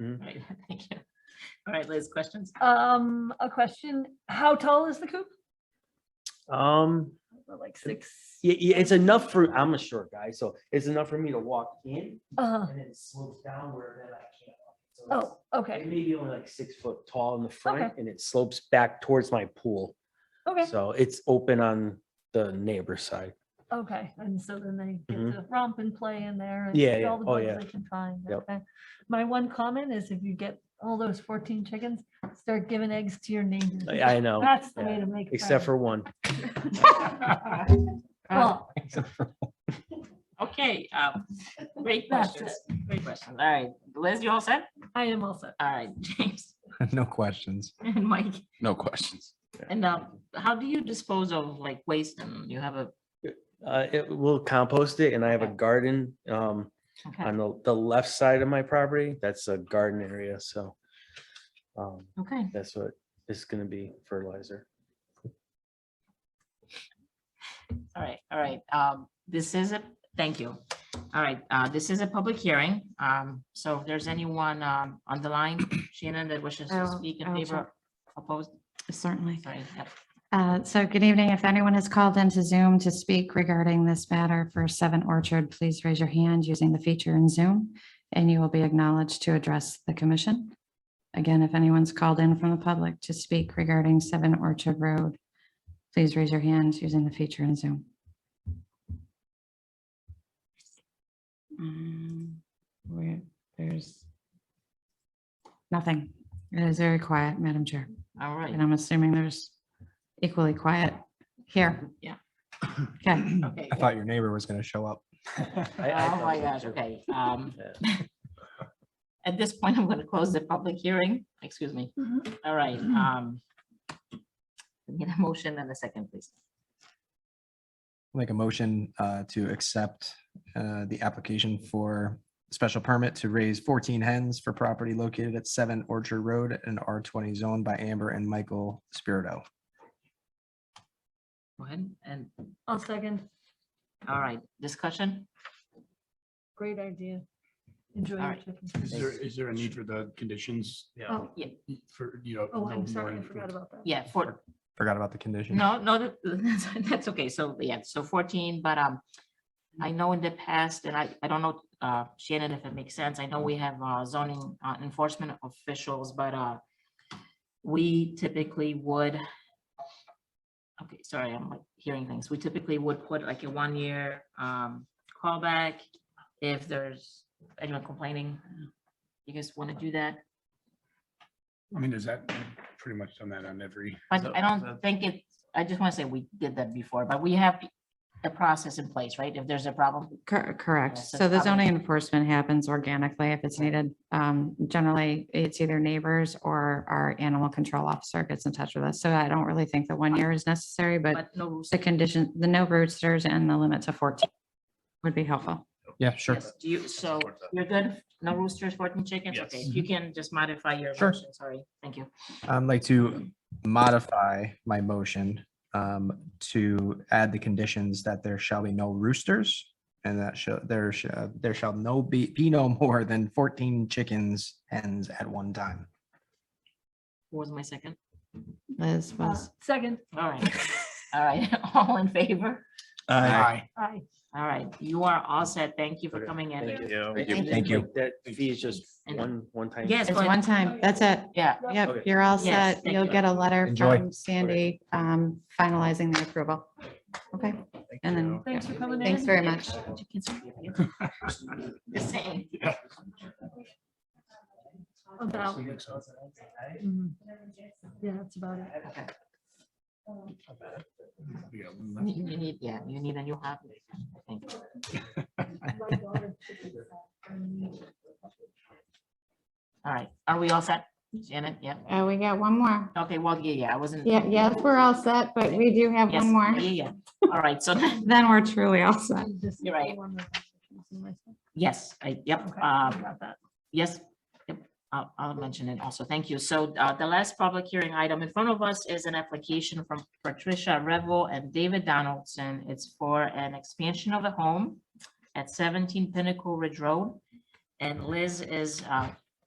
Mhm. All right, thank you. All right, Liz, questions? Um, a question, how tall is the coop? Um, Like six? yeah, yeah, it's enough for, I'm a short guy, so it's enough for me to walk in Uh, and then it slopes downward and then I can't. walk. So it's- oh, It okay, may be only like six foot tall in the front Okay. and it slopes back towards my pool. okay, So it's open on the neighbor's side. okay. And so then they get Mhm. to romp and play in there. and Yeah, get yeah. all the Oh, bugs yeah. They can find. Yep. okay. My one comment is if you get all those fourteen chickens, start giving eggs to your neighbors. I I know, That's the yeah, way to make. except for one. Uh, Well, Okay, um, great That's questions, great questions. All right, Liz, you all set? I am also, All right, James No questions. and Mike. No questions. And um, how do you dispose of like waste and you have a, Uh, it will compost it and I have a Okay. garden, um, okay, on the, the left side of my property. That's a garden area, so. Um, okay. that's what it's gonna be fertilizer. All right, all right. Um, this is a, thank you. All right, uh, this is a public hearing. Um, so if there's anyone, um, on the line, Shannon, that wishes to I'll- speak in I'll favor, opposed, Certainly. sorry, yep. Uh, So good evening. If anyone has called into Zoom to speak regarding this matter for Seven Orchard, please raise your hand using the feature in Zoom, and you will be acknowledged to address the commission. Again, if anyone's called in from the public to speak regarding Seven Orchard Road, please raise your hands using the feature in Zoom. Mm, Where, there's nothing. It is very quiet, Madam Chair. All right, And I'm assuming there's equally quiet here. Yeah. Okay, okay. I thought your neighbor was gonna show up. I- I Oh thought my so gosh, too. okay. Um, Yeah. at this point, I'm gonna close the public hearing, excuse me. Mhm. All right, um. we Need a motion and a second, please. Make a motion uh, to accept uh, the application for special permit to raise fourteen hens for property located at seven Orchard Road in R twenty zone by Amber and Michael Spirito. Go ahead and, I'll second, all right, discussion? great idea. Enjoy your Alright. chickens. Is there, is there a need for the conditions? Yeah. Oh, For, you know. oh, no more I'm sorry, I than- forgot about that. Yeah, for, Forgot about the condition. No, no, that- that's, that's okay. So, yeah, so fourteen, but, um, I know in the past, and I, I don't know, uh, Shannon, if it makes sense, I know we have, uh, zoning, uh, enforcement officials, but, uh, we typically would, okay, sorry, I'm like hearing things. We typically would put like a one-year, um, callback if there's anyone complaining. You guys want to do that? I mean, is that pretty much done that on every? But I don't think it, I just want to say we did that before, but we have the process in place, right? If there's a problem. cor- Yeah, correct. so So the probably- zoning enforcement happens organically if it's needed. Um, Generally, it's either neighbors or our animal control officer gets in touch with us. So I don't really think that one year is necessary, but But no rules. the condition, the no roosters and the limit to 14 would be helpful. Yeah, sure. Yes, Do you, so you're good? No roosters, fourteen chickens? Okay, Yes. if you can just modify your Sure. motion, sorry. Thank you. I'd Um, like to modify my motion um, to add the conditions that there shall be no roosters and that shall, there shall, there shall no be, be no more than fourteen chickens hens at one time. Who was my second? Liz Uh, was, Second, All right, all right, all in favor? aye. All right, you are all set. Thank you for Okay, coming in. Thank you. Thank Thank you. That fee is just And- one, one time. Yes, it's one time. That's it. yeah, Yep, Okay. you're all Yes, set. thank You'll you. get a letter Enjoy. from Sandy um, finalizing the approval. Okay, and then Thanks for coming in. Thanks very much. Chickens are The same. About, mhm. yeah, that's about it. Okay. Yeah. You you need, yeah, you need a new hobby. I think. All right, are we all set? Janet, yeah, Uh, we got one more. okay, well, yeah, yeah, I wasn't. Yeah, yes, we're all set, but we do have Yes, one more. Yeah, yeah, yeah. all right, so, then we're truly all set. Just You're right. one more question. yes, I, yep, Okay, I um, forgot that. Yes, yep, I'll, I'll mention it also. Thank you. So uh, the last public hearing item in front of us is an application from Patricia Revel and David Donaldson. It's for an expansion of a home at seventeen Pinnacle Ridge Road. And Liz is uh,